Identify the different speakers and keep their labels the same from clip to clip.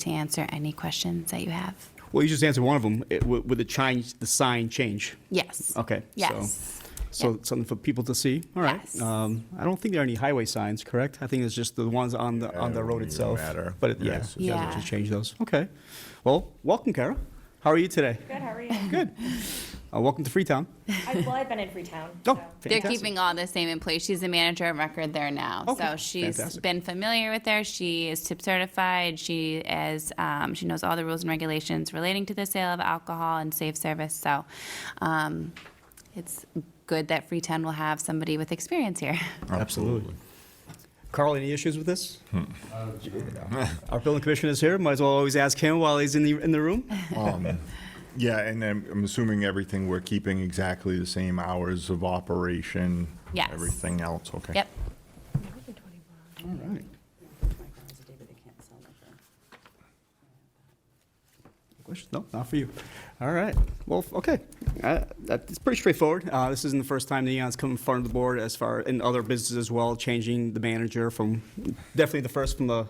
Speaker 1: to answer any questions that you have.
Speaker 2: Well, you just answered one of them. It, with, with the change, the sign change.
Speaker 1: Yes.
Speaker 2: Okay.
Speaker 1: Yes.
Speaker 2: So, so
Speaker 1: Yep.
Speaker 2: something for people to see. All right.
Speaker 1: Yes.
Speaker 2: Um, I don't think there are any highway signs, correct? I think it's just the ones on the on the
Speaker 3: it
Speaker 2: road
Speaker 3: wouldn't
Speaker 2: itself.
Speaker 3: matter.
Speaker 2: But it,
Speaker 3: Yeah,
Speaker 2: yeah,
Speaker 3: it's just-
Speaker 2: yeah,
Speaker 1: Yeah.
Speaker 2: just change those. Okay. Well, welcome, Kara. How are you today?
Speaker 4: Good, how are you?
Speaker 2: Good. Uh, welcome to Freetown.
Speaker 4: I, well, I've been in Freetown.
Speaker 2: Oh,
Speaker 4: so.
Speaker 1: They're
Speaker 2: fantastic.
Speaker 1: keeping all the same in place. She's the manager of record there now.
Speaker 2: Okay,
Speaker 1: So she's
Speaker 2: fantastic.
Speaker 1: been familiar with her. She is tip certified. She is, um, she knows all the rules and regulations relating to the sale of alcohol and safe service. So, um, it's good that Freetown will have somebody with experience here.
Speaker 2: Absolutely. Carl, any issues with this? Our building commissioner is here. Might as well always ask him while he's in the in the room.
Speaker 3: Um, Yeah, and I'm I'm assuming everything, we're keeping exactly the same hours of operation?
Speaker 1: Yes.
Speaker 3: Everything else, okay.
Speaker 1: Yep.
Speaker 2: All right. Questions? No, not for you. All right. Well, f- okay. Uh, that- It's pretty straightforward. Uh, This isn't the first time Neon's come in front of the board as far, in other businesses as well, changing the manager from, definitely the first from the,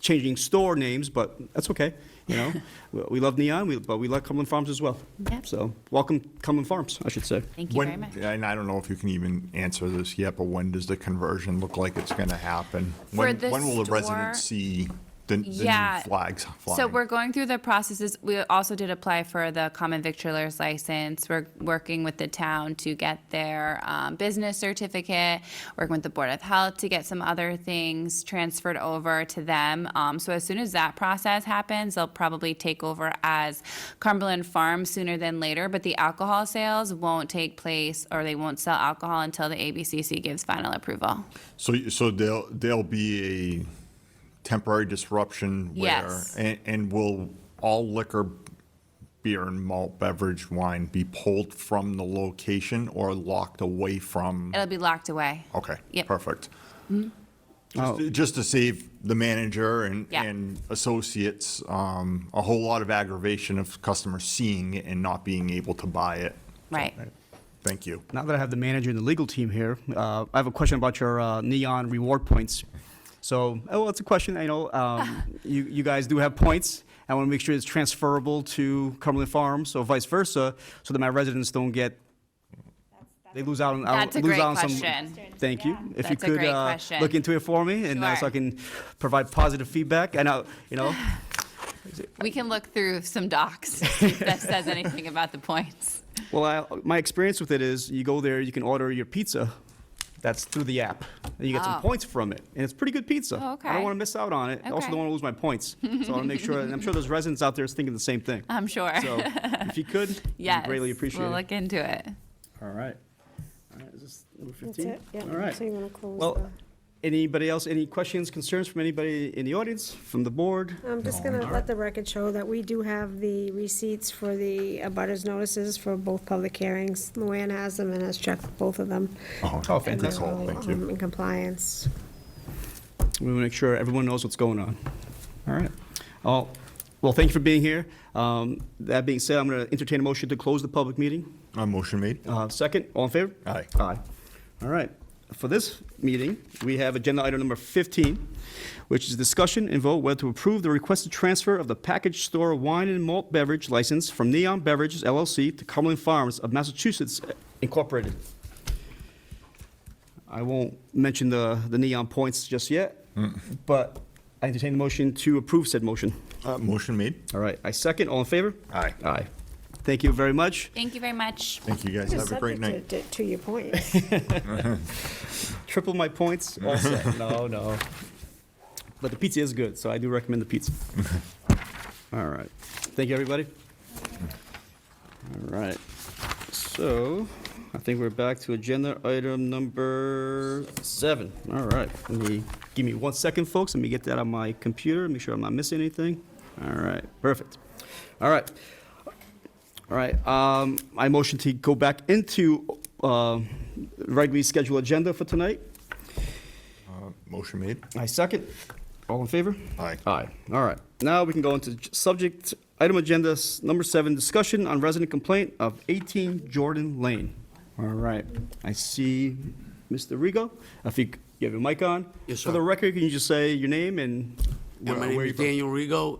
Speaker 2: changing store names, but that's okay, you know? We- We love Neon, we- but we love Cumberland Farms as well.
Speaker 1: Yep.
Speaker 2: So, welcome Cumberland Farms, I should say.
Speaker 1: Thank you
Speaker 3: When-
Speaker 1: very much.
Speaker 3: And I don't know if you can even answer this yet, but when does the conversion look like it's going to happen? When-
Speaker 1: the
Speaker 3: When will the residents
Speaker 1: store-
Speaker 3: see the the
Speaker 1: Yeah.
Speaker 3: new flags flying?
Speaker 1: So we're going through the processes. We also did apply for the common victualer's license. We're working with the town to get their um, business certificate, working with the Board of Health to get some other things transferred over to them. Um, So as soon as that process happens, they'll probably take over as Cumberland Farm sooner than later. But the alcohol sales won't take place, or they won't sell alcohol until the ABCC gives final approval.
Speaker 3: So, you- so there'll, there'll be a temporary disruption where,
Speaker 1: Yes.
Speaker 3: and, and will all liquor, beer and malt beverage, wine be pulled from the location or locked away from?
Speaker 1: It'll be locked away.
Speaker 3: Okay,
Speaker 1: Yep.
Speaker 3: perfect. Mm-hmm. Just to- Just to save the manager and,
Speaker 1: Yeah.
Speaker 3: and associates, um, a whole lot of aggravation of customers seeing it and not being able to buy it.
Speaker 1: Right.
Speaker 3: Thank you.
Speaker 2: Now that I have the manager and the legal team here, uh, I have a question about your uh, neon reward points. So, oh, well, it's a question. I know um, you, you guys do have points. I want to make sure it's transferable to Cumberland Farms, so vice versa, so that my residents don't get they lose out on. I
Speaker 1: That's a
Speaker 2: lose
Speaker 1: great
Speaker 2: out on
Speaker 1: question.
Speaker 2: Some, thank you. If you
Speaker 1: That's a
Speaker 2: could
Speaker 1: great
Speaker 2: uh,
Speaker 1: question.
Speaker 2: look into it for me, and uh, so
Speaker 1: Sure.
Speaker 2: I can provide positive feedback. And I, you know,
Speaker 1: We can look through some docs to see if that says anything about the points.
Speaker 2: Well, I, my experience with it is you go there, you can order your pizza. That's through the app. And you get
Speaker 1: Oh.
Speaker 2: some points from it. And it's pretty good pizza.
Speaker 1: Oh,
Speaker 2: I
Speaker 1: okay.
Speaker 2: don't want to miss out on it. I also
Speaker 1: Okay.
Speaker 2: don't want to lose my points. So I want to make sure, and I'm sure there's residents out there that's thinking the same thing.
Speaker 1: I'm sure.
Speaker 2: So if you could, it'd be
Speaker 1: yes,
Speaker 2: greatly appreciate
Speaker 1: We'll
Speaker 2: it.
Speaker 1: look into it.
Speaker 2: All right. All right, is this number 15?
Speaker 5: That's it, yeah.
Speaker 2: All right.
Speaker 5: So you want to close
Speaker 2: Well,
Speaker 5: the-
Speaker 2: Anybody else, any questions, concerns from anybody in the audience, from the board?
Speaker 5: I'm just going to let the record show that we do have the receipts for the abutters notices for both public hearings. Luann has them and has checked both of them.
Speaker 2: Oh, fantastic.
Speaker 5: They're all,
Speaker 3: Thank you.
Speaker 5: um, In compliance.
Speaker 2: We want to make sure everyone knows what's going on. All right. Oh, well, thank you for being here. Um, That being said, I'm going to entertain a motion to close the public meeting.
Speaker 3: Uh, motion made?
Speaker 2: Uh, Second, all in favor?
Speaker 3: Aye.
Speaker 2: Aye. All right. For this meeting, we have agenda item number 15, which is discussion and vote whether to approve the requested transfer of the package store wine and malt beverage license from Neon Beverages LLC to Cumberland Farms of Massachusetts Incorporated. I won't mention the, the neon points just yet,
Speaker 3: Mm.
Speaker 2: but I entertain the motion to approve said motion.
Speaker 3: Uh, motion made?
Speaker 2: All right, I second, all in favor?
Speaker 3: Aye.
Speaker 2: Aye. Thank you very much.
Speaker 1: Thank you very much.
Speaker 3: Thank you guys. Have a great night.
Speaker 5: Subject To to- to your point.
Speaker 2: Triple my points, all set. No, no. But the pizza is good, so I do recommend the pizza. All right. Thank you, everybody. All right. So I think we're back to agenda item number seven. All right. Let me, give me one second, folks. Let me get that on my computer, make sure I'm not missing anything. All right, perfect. All right. All right, um, I motion to go back into, um, regularly scheduled agenda for tonight.
Speaker 3: Motion made?
Speaker 2: I second. All in favor?
Speaker 3: Aye.
Speaker 2: Aye. All right. Now we can go into j- subject, item agenda s- number seven, discussion on resident complaint of 18 Jordan Lane. All right. I see Mr. Rigo. If you, c- you have your mic on.
Speaker 6: Yes,
Speaker 2: For the
Speaker 6: sir.
Speaker 2: record, can you just say your name and
Speaker 6: And my
Speaker 3: Where-
Speaker 6: name
Speaker 3: where
Speaker 6: is
Speaker 3: you from?
Speaker 6: Daniel Rigo,